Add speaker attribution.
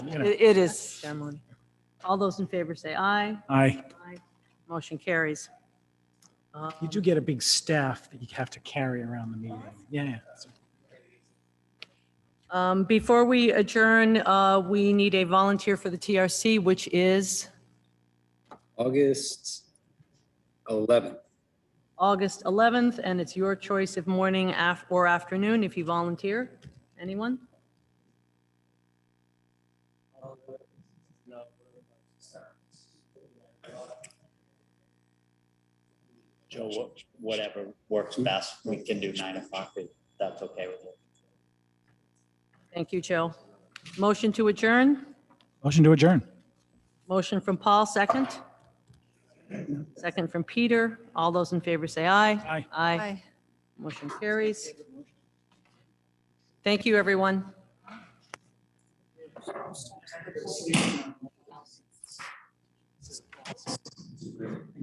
Speaker 1: you know.
Speaker 2: It it is ceremony. All those in favor say aye.
Speaker 1: I,
Speaker 2: Aye. Motion carries.
Speaker 1: you
Speaker 2: Um,
Speaker 1: do get a big staff that you have to carry around the meeting. Yeah, yeah.
Speaker 2: Um, Before we adjourn, uh, we need a volunteer for the TRC, which is
Speaker 3: August 11th.
Speaker 2: August 11th, and it's your choice of morning af- or afternoon if you volunteer. Anyone?
Speaker 4: Joe, wha- whatever works best, we can do nine o'clock, if that's okay with you.
Speaker 2: Thank you, Joe. Motion to adjourn?
Speaker 1: Motion to adjourn.
Speaker 2: Motion from Paul, second. Second from Peter. All those in favor say aye.
Speaker 1: Aye.
Speaker 2: Aye. Motion carries. Thank you, everyone.